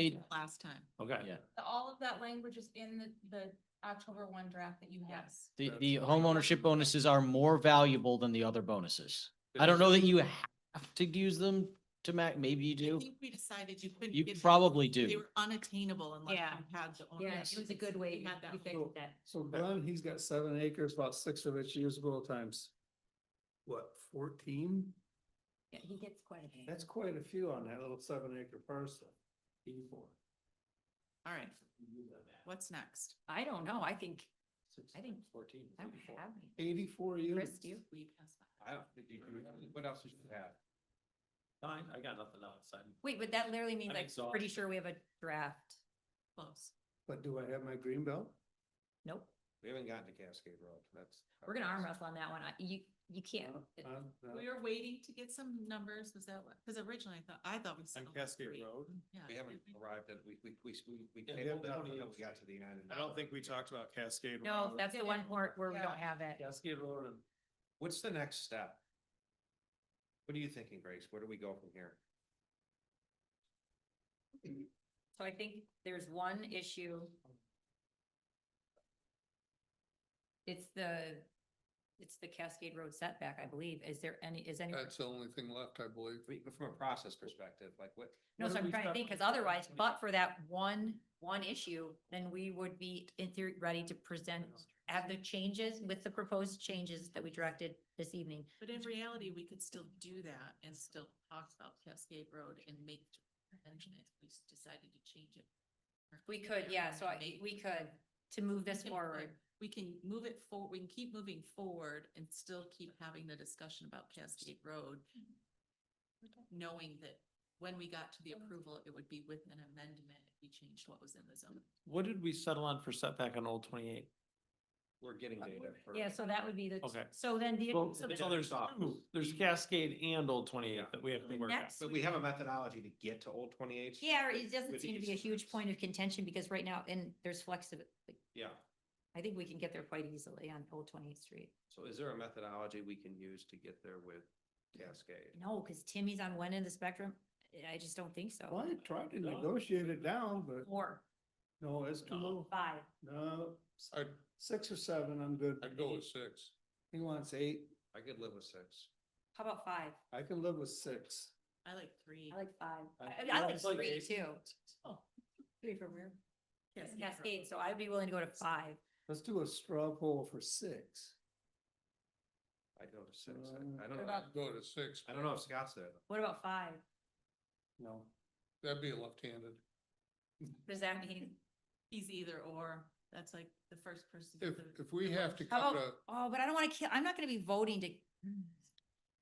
Eight. last time. Okay. Yeah. The- All of that language is in the, the October one draft that you have. Yes. The, the homeownership bonuses are more valuable than the other bonuses. Good I don't know that you have to use them to ma, maybe you I do. think we decided you couldn't. You get them. probably They do. were unattainable unless Yeah. you had the. Oh, Yeah, ownership. it was a good way We you had that. you So- fixed that. So Glenn, he's got seven acres, about six of it's usable times. What, fourteen? Yeah, he gets quite a bit. That's quite a few on that little seven acre parcel. People. All right, what's next? I don't know. I think, I think Fourteen. I don't have any. Eighty-four Chris, units. do you? We passed that. I don't think you can, what else would you have? Fine, I got nothing else. I'm- Wait, but that literally means I'm like, pretty exhausted. sure we have a draft. Close. But do I have my green belt? Nope. We haven't gotten to Cascade Road, that's. We're gonna arm wrestle on that one. I- You, you can't. Uh, uh, We were waiting to get some numbers, was that what, because originally I thought, I thought we said. On oh, Cascade wait, Road, Uh, Yeah. we haven't did mm-hmm. we? arrived at, we, we, we, we- we Yeah, we tabled it haven't until done it. we got to the end. I don't think we talked about Cascade. No, Road. that's the one part where we Yeah. don't have it. Cascade Road and What's the next step? What are you thinking, Grace? Where do we go from here? So I think there's one issue. It's the, it's the Cascade Road setback, I believe. Is there any, is any? That's the only thing left, I believe. We- From a process perspective, like what, No, What so do I'm we trying to stop think, when because we stop otherwise, when we- but for that one, one issue, then we would be in theory, ready to present, have the changes with the proposed changes that we directed this evening. But in reality, we could still do that and still talk about Cascade Road and make, mention it, we s- decided to change it. We could, yeah, so I, Maybe. we could, to move this We can- forward. We can move it for, we can keep moving forward and still keep having the discussion about Cascade Road. Knowing that when we got to the approval, it would be with an amendment if we changed what was in the zone. What did we settle on for setback on Old Twenty-Eight? we're getting data for. Uh, Yeah, so that would be the, Okay. so then the. Well, so the- so there's two, there's Cascade and Old Twenty-Eight that we have to work out. Next But we have a methodology to get to Old Twenty Eight. Yeah, or it doesn't with seem to these be a huge numbers. point of contention because right now, and there's flexibility. Yeah, I think we can get there quite easily on Old Twenty Eighth Street. so is there a methodology we can use to get there with Cascade? No, because Timmy's on one end of the spectrum. I just don't think so. Well, I tried to No. negotiate it down, but Or no, it's too No. low. five. No, s- I'd, six or seven, I'm good. I'd go with six. He wants eight. I could live with six. How about five? I can live with six. I like three. I like five. I- I- I yeah, like it's like three eight. too. Oh. Three from where? Cascade Road. Cascade, so I'd be willing to go to five. Let's do a straw poll for six. I'd go to six. Uh, I- I don't What know. about- Go to six. I don't know if Scott's there. though. What about five? No. That'd be left-handed. Does that mean, He's either or, that's like the first person. If, the- if we the have most- to how cut about, a, oh, but I don't want to kill, I'm not going to be voting to,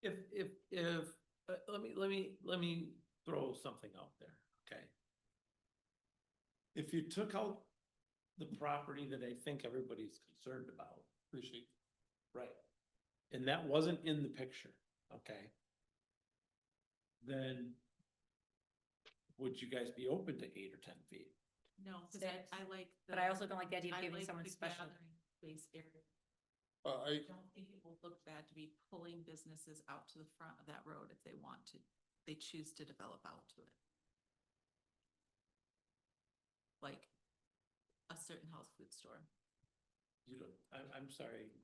If, if, if, uh, let me, let me, let me throw something out there, okay? If you took out the property that I think everybody's concerned about. Appreciate. Right. And that wasn't in the picture, okay? Then would you guys be open to eight or ten feet? No, because I, Six. I like. but I the- also don't like the idea of I giving like someone the special. gathering Space area. uh, I, I don't think it will look bad to be pulling businesses out to the front of that road if they want to, they choose to develop out to it. Like a certain health food store. You don't, I'm, I'm sorry,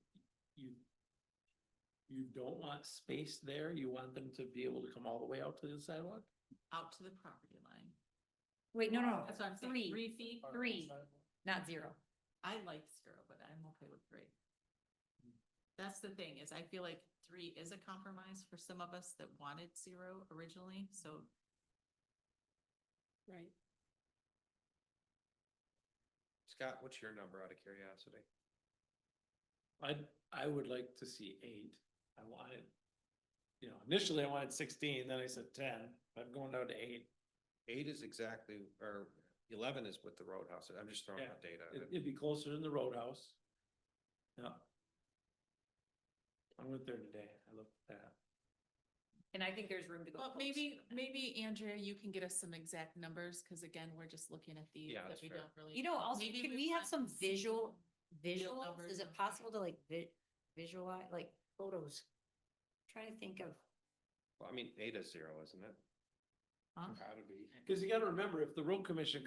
you, you don't want space there, you want them to be able to come all the way out to the sidewalk? out to the property line. Wait, no, no, That's what I'm saying. three, Three feet, three, not zero. I like zero, but I'm okay with three. That's the thing is I feel like three is a compromise for some of us that wanted zero originally, so. Right. Scott, what's your number out of curiosity? I, I would like to see eight. I wanted, you know, initially I wanted sixteen, then I said ten, but I'm going down to eight. Eight is exactly, or eleven is with the roadhouse. I'm just throwing Yeah. out data. It- It'd be closer than the roadhouse. Yeah. I went there today. I looked at that. And I think there's room to go. Well, close. maybe, maybe Andrea, you can get us some exact numbers, because again, we're just looking at these Yeah, that that's we fair. don't really. You know, also, Maybe can we have want some visual, visual, numbers is it and- possible to like vi- visualize, like photos? Trying to think of, Well, I mean, eight is zero, isn't it? Huh? Gotta be, cause you gotta remember, if the road commission